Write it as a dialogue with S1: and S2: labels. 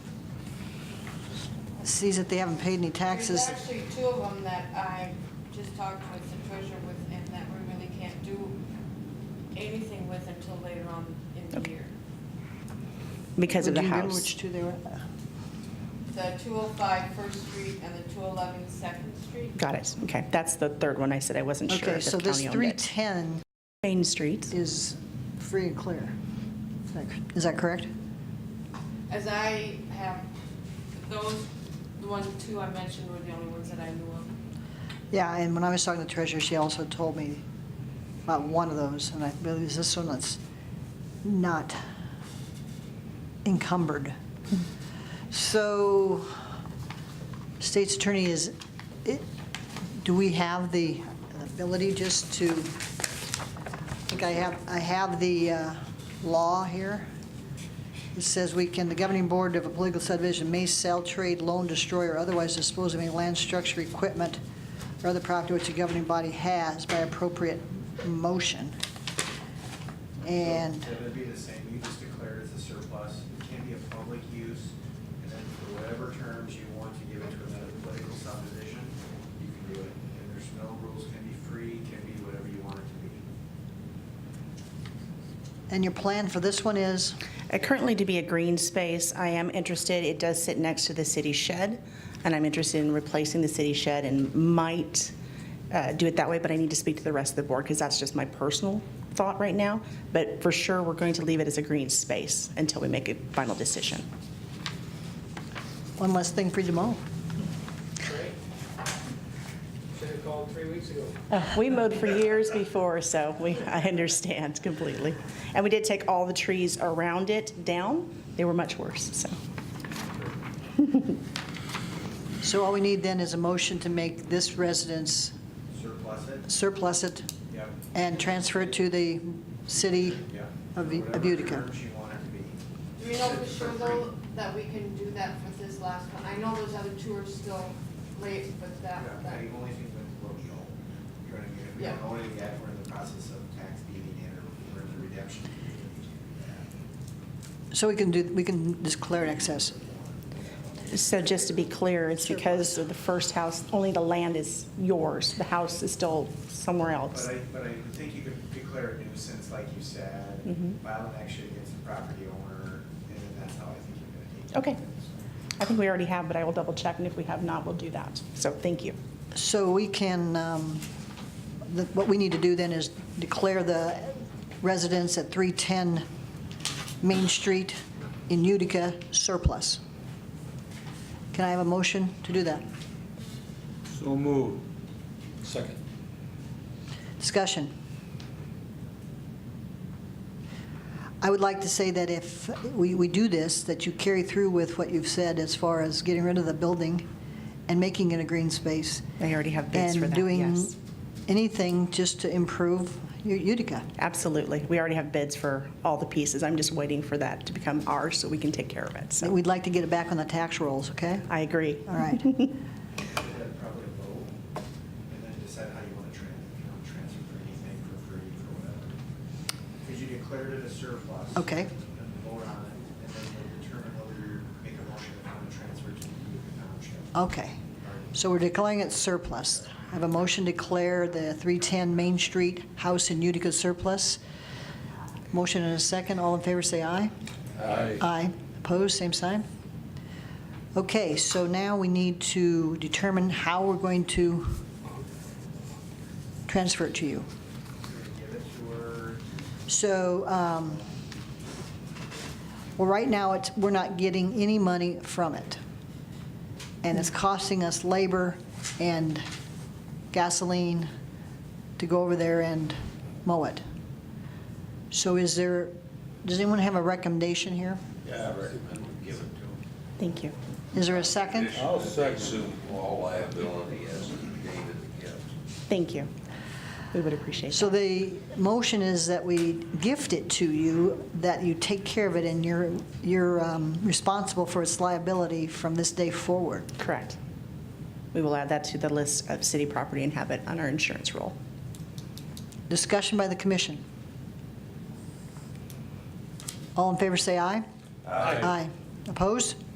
S1: sees that they haven't paid any taxes.
S2: There's actually two of them that I just talked with the treasurer with, and that we really can't do anything with until later on in the
S3: Okay.
S2: year.
S3: because of
S1: Do
S3: the
S1: you remember which
S3: house.
S1: two they were?
S2: The 205 First Street and the 211 Second Street.
S3: Got it, okay. That's the third one I said I wasn't sure
S1: Okay,
S3: if
S1: so
S3: the
S1: this
S3: county owned it.
S1: 310
S3: Main Street,
S1: is free and clear. Is that- Is that correct?
S2: As I have, those, the one, two I mentioned were the only ones that I knew of.
S1: Yeah, and when I was talking to the treasurer, she also told me about one of those, and I believe it's this one that's not encumbered. So, state's attorney is, it- do we have the ability just to, I think I have, I have the uh, law here. It says we can, the governing board of a political subdivision may sell, trade, loan, destroy, or otherwise dispose of any land, structure, equipment, or other property which the governing body has by appropriate motion. And,
S4: So It would be the same, you just declare it as a surplus, it can be a public use, and then for whatever terms you want to give it to another political subdivision, you can do it. And there's no rules, can be free, can be whatever you want it to be.
S1: and your plan for this one is?
S3: Uh, currently to be a green space. I am interested, it does sit next to the city shed, and I'm interested in replacing the city shed and might uh, do it that way, but I need to speak to the rest of the board because that's just my personal thought right now. But for sure, we're going to leave it as a green space until we make a final decision.
S1: One less thing for you to mow.
S5: Great. Should have called three weeks ago.
S3: Uh, We mowed for years before, so we, I understand completely. And we did take all the trees around it down. They were much worse, so.
S1: So all we need then is a motion to make this residence
S4: Surplus it,
S1: surplus it
S4: yep,
S1: and transfer it to the city
S4: yep.
S1: of
S4: For
S1: of
S4: whatever
S1: Utica.
S4: Terms you want it to be.
S2: Do we know for sure though that we can do that for this last one? I know those other two are still late, but that, that.
S4: Yeah, The only thing with colonial, you're gonna get, we don't
S2: Yeah.
S4: own it yet, we're in the process of tax deeding it, or we're in the redemption. period, you can't
S1: So we can do, we can declare an excess.
S3: So just to be clear, it's because of the first house, only the land is yours. The house is still somewhere
S4: But
S3: else.
S4: I, but I think you could declare a nuisance, like you said,
S3: Mhm.
S4: file an action against the property owner, and then that's how I think you're gonna take
S3: Okay.
S4: it.
S3: I think we already have, but I will double check, and if we have not, we'll do that. So thank you.
S1: So we can, um, the- what we need to do then is declare the residence at 310 Main Street in Utica surplus. Can I have a motion to do that?
S6: So move. Second.
S1: Discussion. I would like to say that if we, we do this, that you carry through with what you've said as far as getting rid of the building and making it a green space.
S3: They already have bids for
S1: And
S3: that,
S1: doing
S3: yes.
S1: anything just to improve U- Utica.
S3: Absolutely. We already have bids for all the pieces. I'm just waiting for that to become ours so we can take care of it. So
S1: We'd like to get it back on the tax rolls, okay?
S3: I agree.
S1: All right.
S4: You'd have probably a vote, and then decide how you wanna trans, if you wanna transfer for anything for free, for whatever. Because you declared it a surplus.
S1: Okay.
S4: And vote on it, and then you'll determine whether you make a motion if you wanna transfer to Utica Township.
S1: Okay. So we're declaring it surplus. I have a motion to declare the 310 Main Street house in Utica surplus. Motion and a second. All in favor, say aye.
S6: Aye.
S1: Aye. Opposed, same sign. Okay, so now we need to determine how we're going to transfer it to you.
S4: You're gonna give it to her,
S1: So, um, well, right now, it's, we're not getting any money from it. And it's costing us labor and gasoline to go over there and mow it. So is there, does anyone have a recommendation here?
S6: Yeah, I recommend we give it to him.
S3: Thank you.
S1: Is there a second?
S6: I'll second. All liability as David gives.
S3: Thank you. We would appreciate
S1: So
S3: that.
S1: the motion is that we gift it to you, that you take care of it, and you're, you're um, responsible for its liability from this day forward.
S3: Correct. We will add that to the list of city property and habit on our insurance roll.
S1: Discussion by the commission. All in favor, say aye. Aye. Opposed?